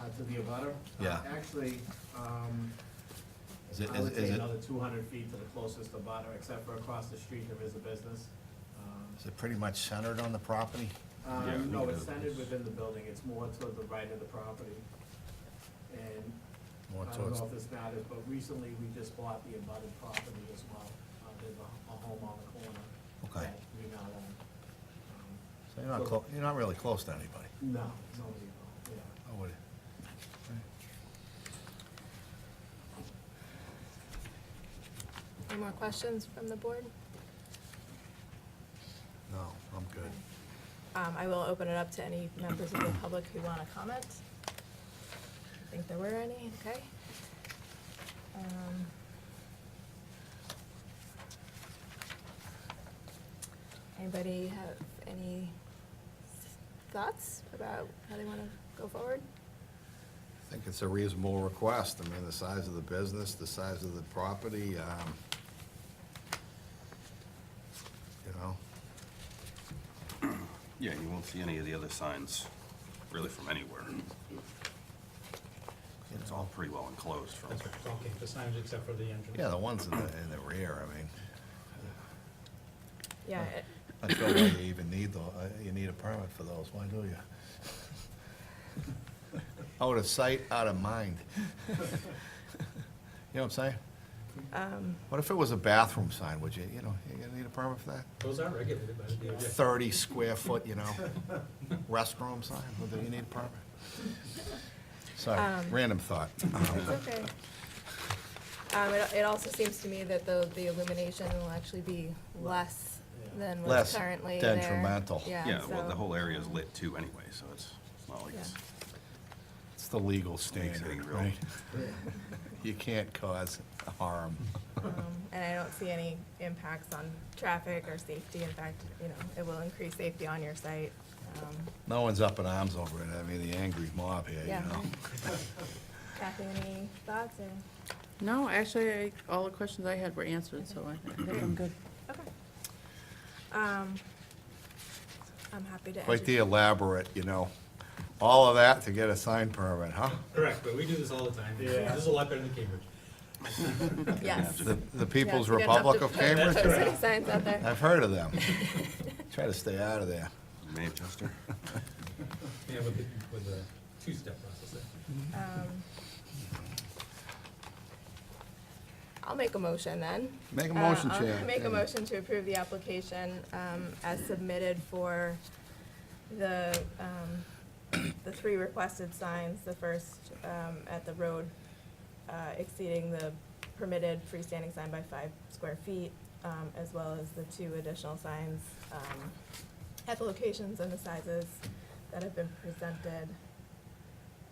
uh, to the abutter. Yeah. Actually, um, Is it, I is would it, is say it, another two hundred feet to the closest abutter, except for across the street, there is a business. Um, is it pretty much centered on the property? Yeah, Um, we no, can it's do centered this. within the building, it's more toward the right of the property. And More I don't towards, know if this matters, but recently we just bought the abutted property as well. Uh, There's a a home on the corner. Okay. that We now own. Um, so you're not clo, you're not really close to anybody. No, nobody, owned, yeah. I would, Any more questions from the board? no, I'm good. Um, I will open it up to any members of the public who want to comment. I think there were any, okay? Um, Anybody have any s- thoughts about how they want to go forward? I think it's a reasonable request. I mean, the size of the business, the size of the property, um, you know, Yeah, you won't see any of the other signs really from anywhere. It's all pretty well enclosed from. Don't keep the signs except for the entrance. Yeah, the ones in the, in the rear, I mean, Yeah, it- I don't know why you even need the, uh, you need a permit for those, why do you? Out of sight, out of mind. You know what I'm saying? What if it was a bathroom sign, would you, you know, you gonna need a permit for that? Those are regulated by the DOJ. Thirty square foot, you know, restroom sign, would you need a permit? Sorry, random thought. It's okay. Um, it, it also seems to me that the, the illumination will actually be less than what's Less currently there. detrimental. Yeah, Yeah, well, the so- whole area is lit too anyway, so it's it's not like it's. It's the legal Anything standard, real. right? You can't cause harm. um, And I don't see any impacts on traffic or safety. In fact, you know, it will increase safety on your site. Um, No one's up in arms over it, I mean, the angry mob here, you Yeah. know? Kathy, any thoughts or? No, actually, I- all the questions I had were answered, so I I think I'm good. Okay. Um, I'm happy to. Quite the entertain- elaborate, you know, all of that to get a sign permit, huh? Correct, but we do this all the time. Yeah. This is a lot better than Cambridge. Yes. The, the People's Yes, we got Republic enough of to- Cambridge? put City signs out there. I've heard of them. Try to stay out of there. Manchester? Yeah, with the, with the two-step process there. Um, I'll make a motion then. make a Uh, motion, I'll Chair. Make a motion to approve the application um, as submitted for the, um, the three requested signs, the first um, at the road uh, exceeding the permitted freestanding sign by five square feet, um, as well as the two additional signs um, at the locations and the sizes that have been presented.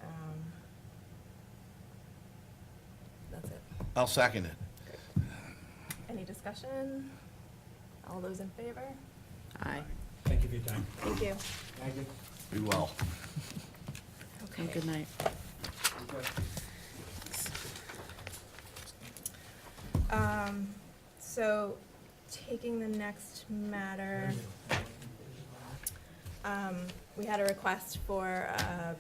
Um, That's it. I'll second it. Any discussion? All those in favor? Aye. Thank you for your time. Thank you. Thank you. We will. Have a Good night. Um, so, taking the next matter, um, we had a request for, uh,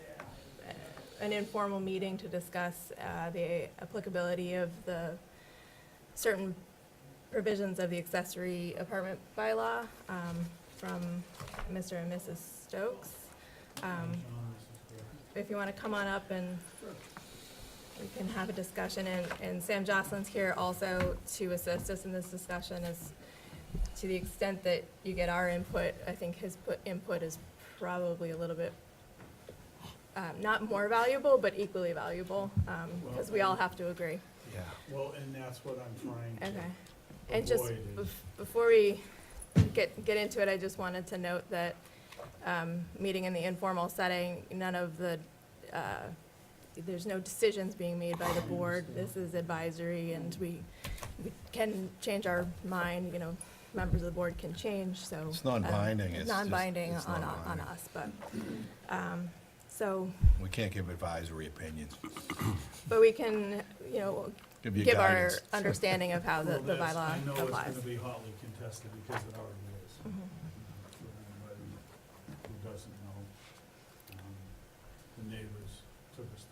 an informal meeting to discuss, uh, the applicability of the certain provisions of the accessory apartment bylaw, um, from Mr. and Mrs. Stokes. Um, if you wanna come on up and we can have a discussion, and, and Sam Jocelyn's here also to assist us in this discussion is, to the extent that you get our input, I think his put, input is probably a little bit, um, not more valuable, but equally valuable, um, because we all have to agree. Yeah. Well, and that's what I'm trying Okay. to And just avoid is- bef- before we get, get into it, I just wanted to note that, um, meeting in the informal setting, none of the, uh, there's no decisions being made by the board. This is advisory and we, we can change our mind, you know, members of the board can change, so. It's uh, non-binding, it's just- Non-binding it's on, on non-binding. us, but, um, so, We can't give advisory opinions. but we can, you know, Give you give our guidance. understanding of how the, Well, the that's- bylaw I know it's applies. Mm-hmm. gonna be hotly contested because it already is. For anybody Who doesn't know, um, the neighbors